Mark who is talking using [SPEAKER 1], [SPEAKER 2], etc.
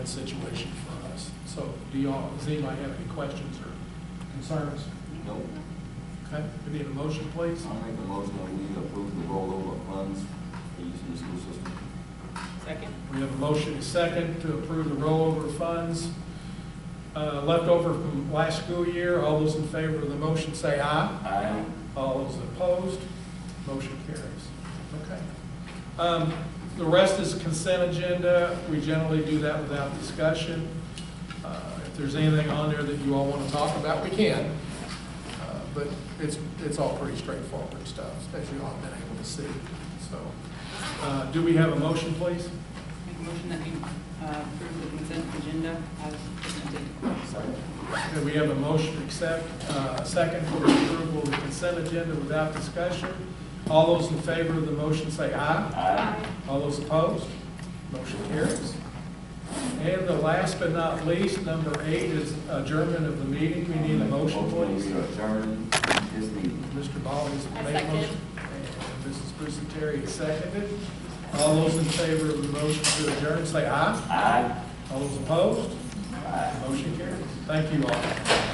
[SPEAKER 1] that situation for us. So do y'all, does anybody have any questions or concerns?
[SPEAKER 2] Nope.
[SPEAKER 1] Okay, we need a motion, please.
[SPEAKER 2] I'll make the motion that we approve the rollover of funds for use in the school system.
[SPEAKER 3] Second?
[SPEAKER 1] We have a motion and second to approve the rollover funds uh, left over from last school year. All those in favor of the motion say aye.
[SPEAKER 2] Aye.
[SPEAKER 1] All those opposed, motion carries. Okay. Um, The rest is consent agenda. We generally do that without discussion. Uh, If there's anything on there that you all want to talk about, we can. Uh, But it's, it's all pretty straightforward stuff, as you all have been able to see. So, uh, do we have a motion, please?
[SPEAKER 3] Make a motion that we uh, approve the consent agenda as presented.
[SPEAKER 1] Okay, we have a motion to accept, uh, second for approval of the consent agenda without discussion. All those in favor of the motion say aye.
[SPEAKER 2] Aye.
[SPEAKER 1] All those opposed? Motion carries. And the last but not least, number eight is adjournment of the meeting. We need a motion, please.
[SPEAKER 2] We adjourn this meeting.
[SPEAKER 1] Mr. Ball has
[SPEAKER 4] I
[SPEAKER 1] made a
[SPEAKER 4] second.
[SPEAKER 1] motion. And Mrs. Bruce Terry seconded. All those in favor of the motion to adjourn, say aye.
[SPEAKER 2] Aye.
[SPEAKER 1] All those opposed?
[SPEAKER 2] Aye.
[SPEAKER 1] Motion carries. Thank you all.